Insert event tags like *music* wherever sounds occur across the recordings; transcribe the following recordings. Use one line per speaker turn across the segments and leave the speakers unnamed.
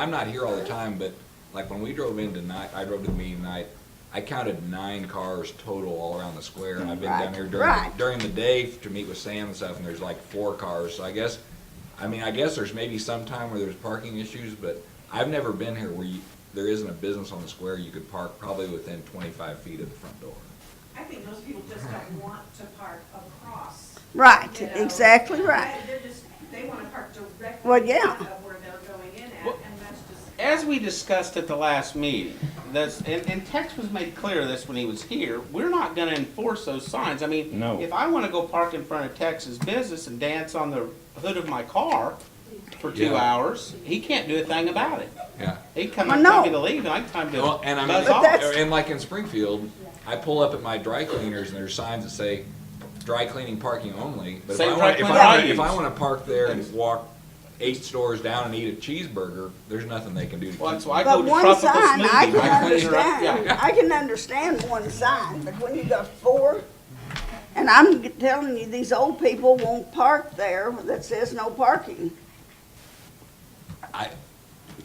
I'm not here all the time, but like when we drove in tonight, I drove to the meeting tonight, I counted nine cars total all around the square. I've been down
Right,
here during,
right.
during the day to meet with Sam and stuff, and there's like four cars, so I guess, I mean, I guess there's maybe some time where there's parking issues, but I've never been here where you, there isn't a business on the square you could park probably within twenty-five feet of the front door.
I think most people just don't want to park across.
Right,
you know.
exactly right.
They- They're just, they want to park directly.
Well, yeah.
in front Of where they're going in at,
Well-
and that's just.
As we discussed at the last meeting, this, and, and Tex was made clear of this when he was here, we're not gonna enforce those signs. I mean,
No.
if I wanna go park in front of Tex's business and dance on the hood of my car for two
Yeah.
hours, he can't do a thing about it.
Yeah.
He can come
Well,
and tell me
no.
to leave, and I can tell him to
Well, and I mean,
buzz
But
off.
that's-
and like in Springfield, I pull up at my dry cleaners and there's signs that say dry cleaning parking only. But if
Same
I
dry
want, if
cleaner
I,
I
if I
use.
wanna park there and walk eight stores down and eat a cheeseburger, there's nothing they can do to
Well,
keep
that's
me.
why I go
But
to
one
Tropical
sign,
*laughs*
I can
Smoothie. clean her up.
understand,
Yeah.
I can understand one sign, but when you got four, and I'm g- telling you, these old people won't park there that says no parking.
I,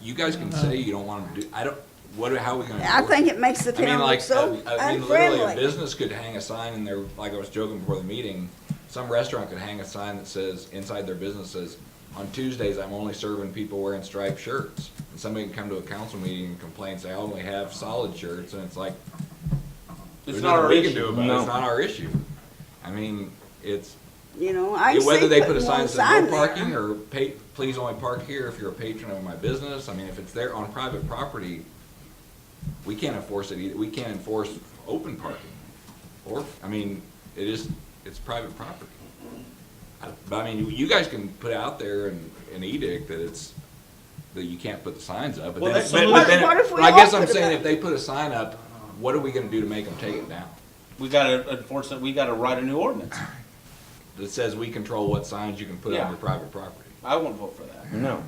you guys can say you don't wanna do, I don't, what, how are we gonna?
I
work?
think it makes the
I mean,
town look
like,
so
I I mean, literally, a
unfriendly.
business could hang a sign in there, like I was joking before the meeting, some restaurant could hang a sign that says, inside their business says, on Tuesdays, I'm only serving people wearing striped shirts. And somebody can come to a council meeting and complain, say, I only have solid shirts, and it's like,
It's
there's
not
nothing
our
we can
issue.
do about it,
No.
it's not our issue. I mean, it's,
You know, I can see
whether they put a
putting
sign
one
that says
sign
no parking
there.
or pay, please only park here if you're a patron of my business, I mean, if it's there on private property, we can't enforce it either, we can't enforce open parking. Or, I mean, it is, it's private property. I- But I mean, you- you guys can put out there an, an edict that it's, that you can't put the signs up, but
Well,
then,
that's
but-
the
but
solution.
then,
What if we
but I guess
all
I'm
put it
saying
up?
if they put a sign up, what are we gonna do to make them take it down?
We gotta enforce it, we gotta write a new ordinance.
That says we control what signs you can put on
Yeah.
your private property.
I won't vote for that.
No.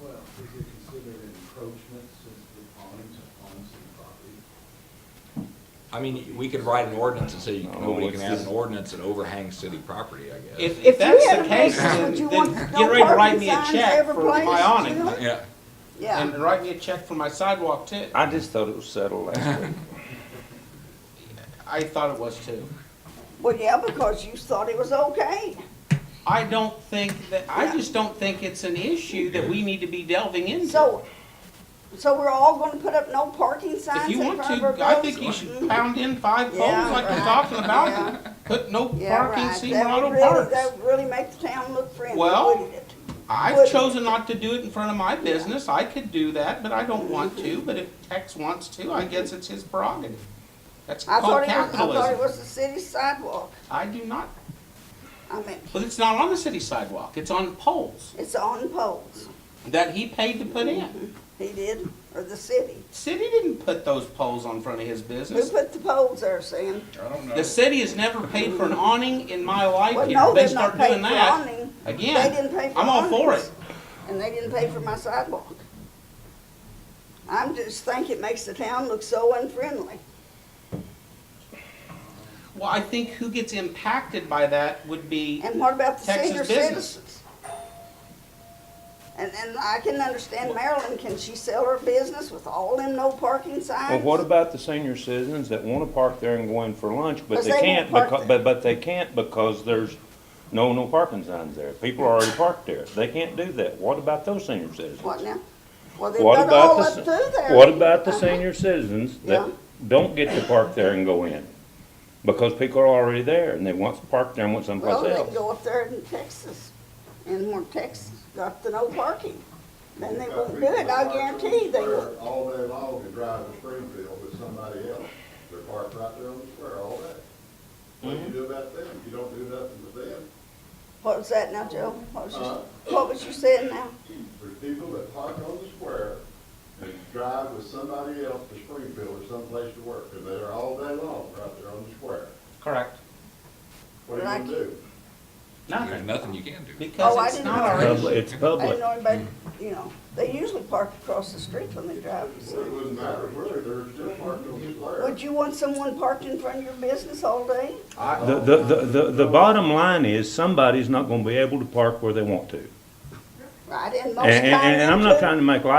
Well, is it considered encroachment since the pond's on city property?
I mean, we could write an ordinance and say you-
Oh,
nobody can
it's
have an
just-
ordinance that overhangs city property, I guess.
If,
If
if
you
that's
had
the
a
case,
business,
then,
would you
then
want no
get ready to write
parking
me a
signs
check
every
for
place,
my awning.
you know?
Yeah,
Yeah,
And write me a check for my sidewalk too.
I just thought it was settled
*laughs*
last week.
I thought it was too.
well, yeah, because you thought it was okay.
I don't think that,
Yeah.
I just don't think it's an issue that we need to be delving into.
So, so we're all gonna put up no parking
If
signs
you
in
want
front of our
to, I think you should pound in five poles
Yeah,
like
right.
you're talking
Yeah.
about, and put no
Yeah,
parking,
right.
see
That
where auto
would really- That
parks.
would really make the town look friendly,
Well-
wouldn't it? would-
I've chosen not to do it in front of my business, I could do that, but I don't want
Mm-hmm.
to, but if Tex wants to, I guess it's his prerogative. That's
I thought
called
it was, I thought it
capitalism.
was the city sidewalk.
I do not,
I mean,
but it's not on the city sidewalk, it's on poles
it's on poles.
that he paid to put
Mm-hmm.
in.
He did, or the city.
City didn't put those poles on front of his
Who
business.
put the poles there, Sam?
The city has never paid for an awning in my life,
Well,
and
no,
if they
they're not
start
paying
doing
for
that,
awning. They
again,
didn't pay for awnings.
I'm all for it.
And they didn't pay for my sidewalk. I'm just think it makes the town look so unfriendly.
Well, I think who gets impacted by that would be,
And what about the
Texas
senior
business.
citizens? And, and I can understand Marilyn, can she sell her business with all them no parking signs?
Well, what about the senior citizens that wanna park there and go in for lunch, but
Because
they
they
can't,
won't park
becau-
there.
but, but they can't because there's no, no parking signs there. People are already parked there. They can't do that. What about those senior citizens?
What now? Well, they've
What
got
about
all
the
up
se-
through there.
What about the
Uh-huh.
senior citizens that
Yeah.
don't get to park there and go in? Because people are already there and they want to park there and want
*laughs*
someplace
Well,
else.
they can go up there in Texas, and where Texas got the no parking. Then they won't do it, I guarantee they will.
All day long to drive to Springfield with somebody else. They're parked right there on the square all day. What do you do about them? You don't do nothing with them.
What was that now, Joe? What was
Uh.
you, what was you saying now?
There's people that park on the square and drive with somebody else to Springfield or someplace to work, and they're all day long right there on the square.
correct,
What are you gonna do?
there's
nothing,
nothing you can do.
Oh, I
because it's
didn't
not
know.
our
Public-
issue.
It's
I didn't
public.
know anybody, you know, they usually park across the street when they drive, you see.
It wouldn't matter where, they're still parked on the square.
Would you want someone parked in front of your business all day?
The, the, the, the- the bottom line is somebody's not gonna be able to park where they want to.
right? And most
And, and, and I'm not
times-
trying to make light